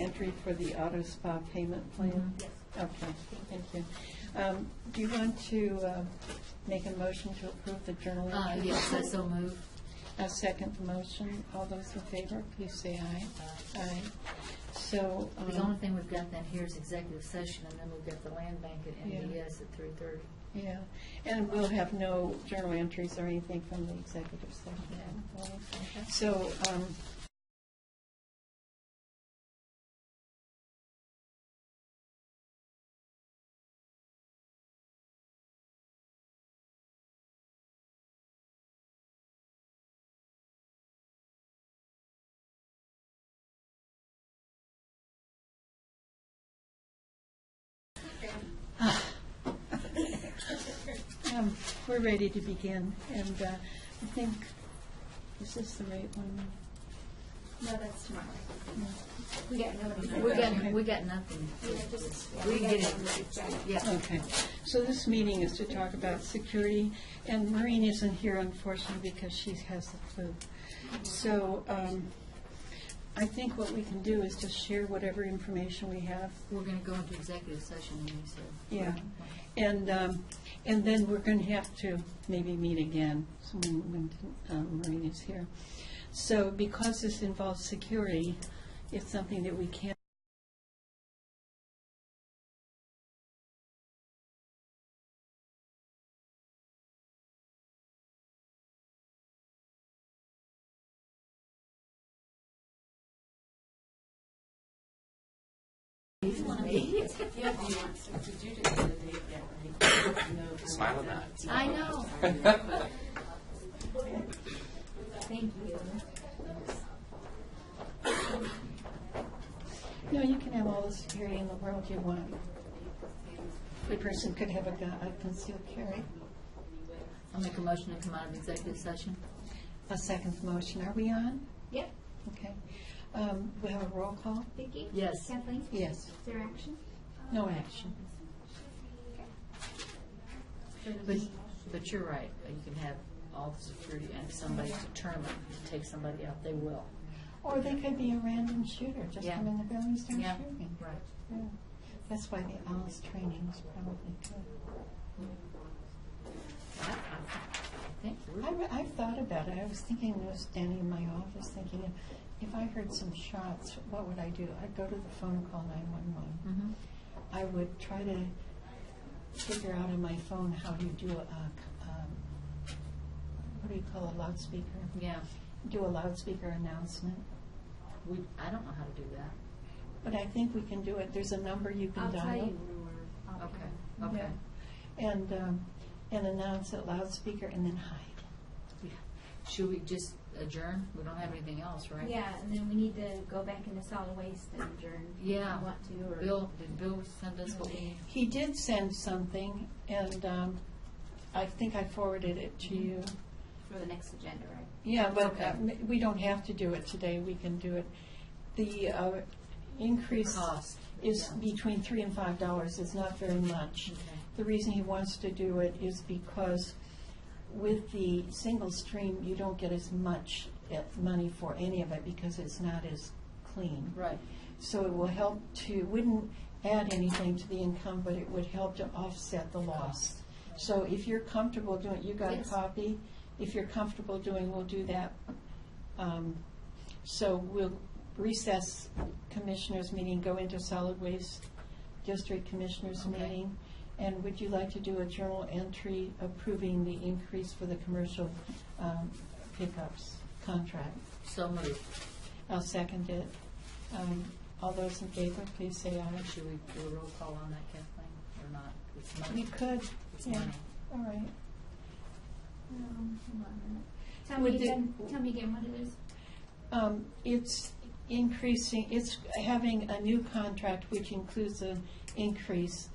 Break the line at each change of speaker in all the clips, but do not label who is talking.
entry for the auto spa payment plan?
Mhm. Yes.
Okay, thank you. Um, Do you want to uh, make a motion to approve the journal
Uh,
entry?
yes, I so move.
A second motion. All those in favor, please say aye. Aye. So, um,
Uh, The only thing we've got then here is executive session, and then we've got the land bank at
Yeah.
MDS at three thirty.
yeah, and we'll have no journal entries or anything from the executive session. So, um, Um, We're ready to begin, and uh, I think, is this the right one?
No, that's tomorrow. We got nobody.
We got, we got nothing. We can get it, yeah.
Okay, so this meeting is to talk about security, and Maureen isn't here unfortunately because she has the flu. So um, I think what we can do is just share whatever information we have
We're gonna go into executive session, and you said.
Yeah, and, um, and then we're going to have to maybe meet again so when when, um, Maureen is here. So because this involves security, it's something that we can't.
Smile at that.
I know. Thank you.
No, you can have all the security in the world you want. Every person could have a gun, a concealed carry.
I'll make a motion to come out of executive session.
A second motion, are we on?
Yep.
Okay. Um, We have a roll call?
Vicki?
Yes.
Kathleen? Is
Yes,
there action?
no action.
But, but you're right, you can have all the security and somebody's determined to take somebody out, they will.
Or they could be a random shooter, just
Yeah.
come in the building and start
Yeah.
shooting.
Right.
Yeah. That's why the owls training is probably good.
I- I think we're-
I, re- I've thought about it. I was thinking, I was standing in my office thinking, if I heard some shots, what would I do? I'd go to the phone and call 911.
Mhm.
I would try to figure out on my phone how to do a, um, what do you call a loudspeaker?
Yeah,
Do a loudspeaker announcement.
we, I don't know how to do that.
But I think we can do it. There's a number you can
I'll
dial.
tell you.
Okay, okay.
And, um, and announce it loudspeaker and then hide.
Yeah. Should we just adjourn? We don't have anything else, right?
Yeah, and then we need to go back into solid waste and adjourn. if we
Yeah.
Want to, or.
Bill, did Bill send us what we need?
He did send something, and um, I think I forwarded it to you.
For the next agenda, right?
Yeah, but uh,
Mm-hmm. Okay.
m- we don't have to do it today, we can do it. The uh, increase
Cost.
is
Yeah.
between three and five dollars, it's not very much.
Okay.
The reason he wants to do it is because with the single stream, you don't get as much uh, money for any of it because it's not as clean.
Right.
So it will help to, wouldn't add anything to the income, but it would help to offset the loss. So if you're comfortable doing, you got a
Yes.
copy? If you're comfortable doing, we'll do that. Um, So we'll recess commissioners' meeting, go into solid waste district commissioners'
Okay.
meeting. And would you like to do a journal entry approving the increase for the commercial um, pickups contract?
So moved.
I'll second it. Um, All those in favor, please say aye.
Should we do a roll call on that, Kathleen, or not? It's
We
money.
could,
It's
yeah,
money.
all right.
Um, hold on a minute. Tell
Would
me
the-
again, tell me again what it is.
Um, It's increasing, it's having a new contract which includes an increase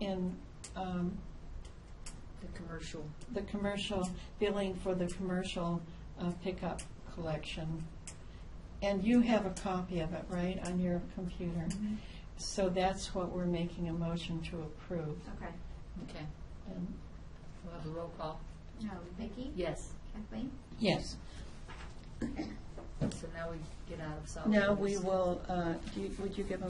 in um,
The commercial.
the commercial, billing for the commercial uh, pickup collection. And you have a copy of it, right, on your computer?
Mm-hmm.
So that's what we're making a motion to approve.
Okay.
Okay.
And-
We'll have a roll call.
No, Vicki?
Yes.
Kathleen?
Yes.
So now we get out of solid.
Now we
waste.
will, uh, do you- would you give a